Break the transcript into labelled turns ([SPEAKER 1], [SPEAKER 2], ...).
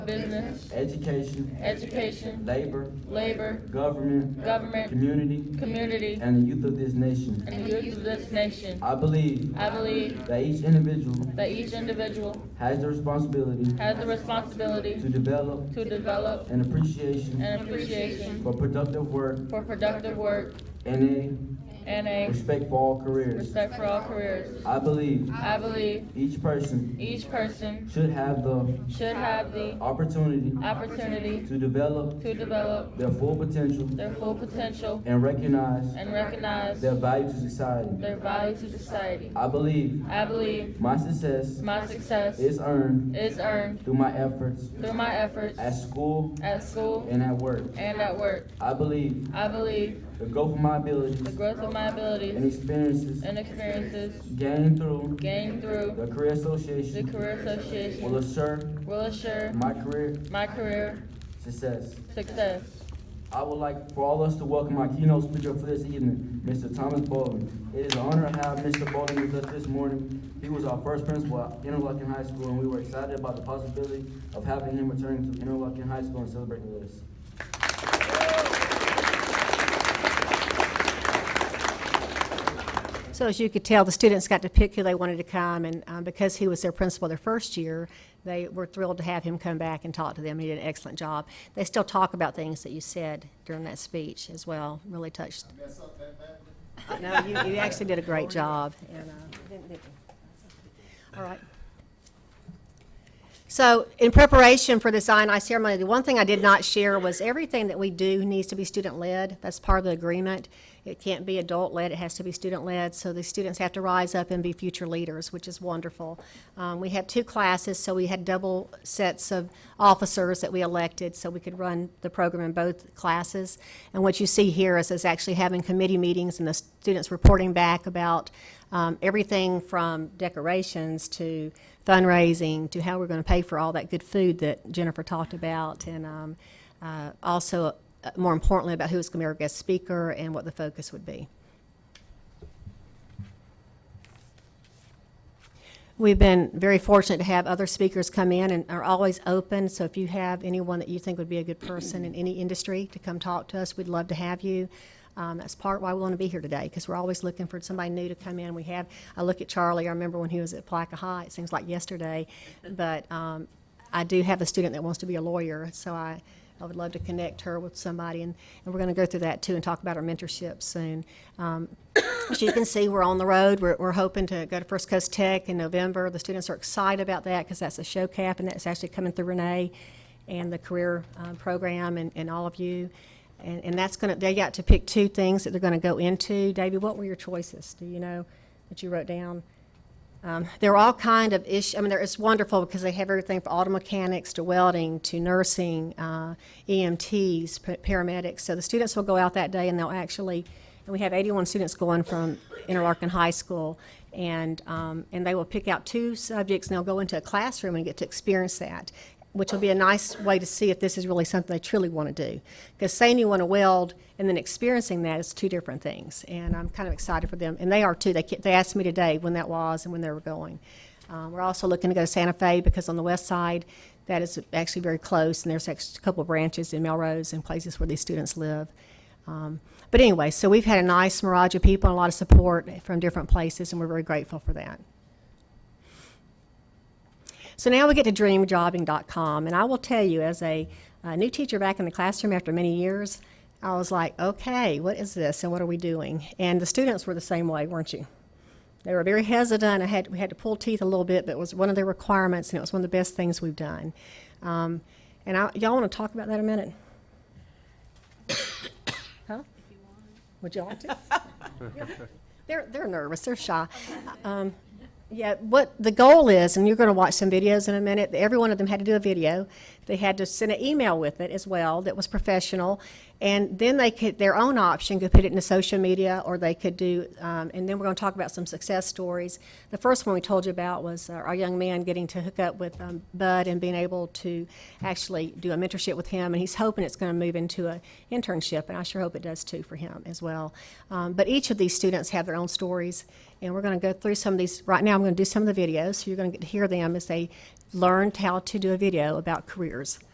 [SPEAKER 1] business,
[SPEAKER 2] education,
[SPEAKER 1] education,
[SPEAKER 2] labor,
[SPEAKER 1] labor,
[SPEAKER 2] government,
[SPEAKER 1] government,
[SPEAKER 2] community,
[SPEAKER 1] community,
[SPEAKER 2] and the youth of this nation.
[SPEAKER 1] and the youth of this nation.
[SPEAKER 2] I believe
[SPEAKER 1] I believe
[SPEAKER 2] that each individual
[SPEAKER 1] that each individual
[SPEAKER 2] has the responsibility
[SPEAKER 1] has the responsibility
[SPEAKER 2] to develop
[SPEAKER 1] to develop
[SPEAKER 2] an appreciation
[SPEAKER 1] an appreciation
[SPEAKER 2] for productive work
[SPEAKER 1] for productive work
[SPEAKER 2] and
[SPEAKER 1] and
[SPEAKER 2] a
[SPEAKER 1] a
[SPEAKER 2] respect for all careers.
[SPEAKER 1] respect for all careers.
[SPEAKER 2] I believe
[SPEAKER 1] I believe
[SPEAKER 2] each person
[SPEAKER 1] each person
[SPEAKER 2] should have the
[SPEAKER 1] should have the
[SPEAKER 2] opportunity
[SPEAKER 1] opportunity
[SPEAKER 2] to develop
[SPEAKER 1] to develop
[SPEAKER 2] their full potential
[SPEAKER 1] their full potential
[SPEAKER 2] and recognize
[SPEAKER 1] and recognize
[SPEAKER 2] their value to society.
[SPEAKER 1] their value to society.
[SPEAKER 2] I believe
[SPEAKER 1] I believe
[SPEAKER 2] my success
[SPEAKER 1] my success
[SPEAKER 2] is earned
[SPEAKER 1] is earned
[SPEAKER 2] through my efforts
[SPEAKER 1] through my efforts
[SPEAKER 2] at school
[SPEAKER 1] at school
[SPEAKER 2] and at work.
[SPEAKER 1] and at work.
[SPEAKER 2] I believe
[SPEAKER 1] I believe
[SPEAKER 2] the growth of my
[SPEAKER 1] the
[SPEAKER 2] abilities
[SPEAKER 1] growth of my
[SPEAKER 2] and
[SPEAKER 1] abilities
[SPEAKER 2] experiences
[SPEAKER 1] and experiences
[SPEAKER 2] gained through
[SPEAKER 1] gained through
[SPEAKER 2] the Career
[SPEAKER 1] the
[SPEAKER 2] Association
[SPEAKER 1] Career
[SPEAKER 2] will
[SPEAKER 1] Association
[SPEAKER 2] assure
[SPEAKER 1] will assure
[SPEAKER 2] my career
[SPEAKER 1] my career
[SPEAKER 2] success.
[SPEAKER 1] success.
[SPEAKER 2] I would like for all us to welcome our keynote speaker for this evening, Mr. Thomas Baldwin. It is an honor to have Mr. Baldwin with us this morning. He was our first principal at Interlochen High School, and we were excited about the possibility of having him return to Interlochen High School and celebrating with us.
[SPEAKER 3] So as you could tell, the students got to pick who they wanted to come, and um, because he was their principal their first year, they were thrilled to have him come back and talk to them. He did an excellent job. They still talk about things that you said during that speech as well, really touched. No, you, you actually did a great job. and, uh, didn't- didn't- All right. So in preparation for this INI ceremony, the one thing I did not share was everything that we do needs to be student-led. That's part of the agreement. It can't be adult-led, it has to be student-led. So the students have to rise up and be future leaders, which is wonderful. Um, we have two classes, so we had double sets of officers that we elected, so we could run the program in both classes. And what you see here is us actually having committee meetings and the students reporting back about um, everything from decorations to fundraising to how we're going to pay for all that good food that Jennifer talked about, and um, uh, also, uh, more importantly, about who is going to be our guest speaker and what the focus would be. We've been very fortunate to have other speakers come in and are always open, so if you have anyone that you think would be a good person in any industry to come talk to us, we'd love to have you. Um, that's part why we want to be here today, because we're always looking for somebody new to come in. We have, I look at Charlie, I remember when he was at Placa High, it seems like yesterday, but, um, I do have a student that wants to be a lawyer, so I, I would love to connect her with somebody, and, and we're gonna go through that too and talk about our mentorship soon. Um, as you can see, we're on the road. We're, we're hoping to go to First Coast Tech in November. The students are excited about that because that's a show cap, and that's actually coming through Renee and the career uh, program and, and all of you. And, and that's gonna, they got to pick two things that they're gonna go into. Davey, what were your choices? Do you know that you wrote down? Um, They're all kind of ish, I mean, they're- it's wonderful because they have everything from auto mechanics to welding to nursing, uh, EMTs, pa- paramedics. So the students will go out that day and they'll actually, and we have 81 students going from Interlaken High School. And, um, and they will pick out two subjects and they'll go into a classroom and get to experience that, which will be a nice way to see if this is really something they truly want to do. Because saying you want to weld and then experiencing that is two different things. And I'm kind of excited for them, and they are too. They, ke- they asked me today when that was and when they were going. Uh, we're also looking to go to Santa Fe because on the west side, that is actually very close, and there's actually a couple of branches in Melrose and places where these students live. Um, but anyway, so we've had a nice mirage of people and a lot of support from different places, and we're very grateful for that. So now we get to dreamjobbing.com, and I will tell you, as a, a new teacher back in the classroom after many years, I was like, okay, what is this and what are we doing? And the students were the same way, weren't you? They were very hesitant. I had, we had to pull teeth a little bit, but it was one of their requirements, and it was one of the best things we've done. Um, and I, y'all want to talk about that a minute? Huh? Would you like to? They're, they're nervous, they're shy. Um, yeah, what the goal is, and you're going to watch some videos in a minute, every one of them had to do a video. They had to send an email with it as well that was professional. And then they could, their own option, could put it into social media or they could do, um, and then we're going to talk about some success stories. The first one we told you about was uh, our young man getting to hook up with um, Bud and being able to actually do a mentorship with him. And he's hoping it's going to move into an internship, and I sure hope it does too for him as well. Um, but each of these students have their own stories. And we're going to go through some of these, right now, I'm going to do some of the videos, so you're going to get to hear them as they learned how to do a video about careers.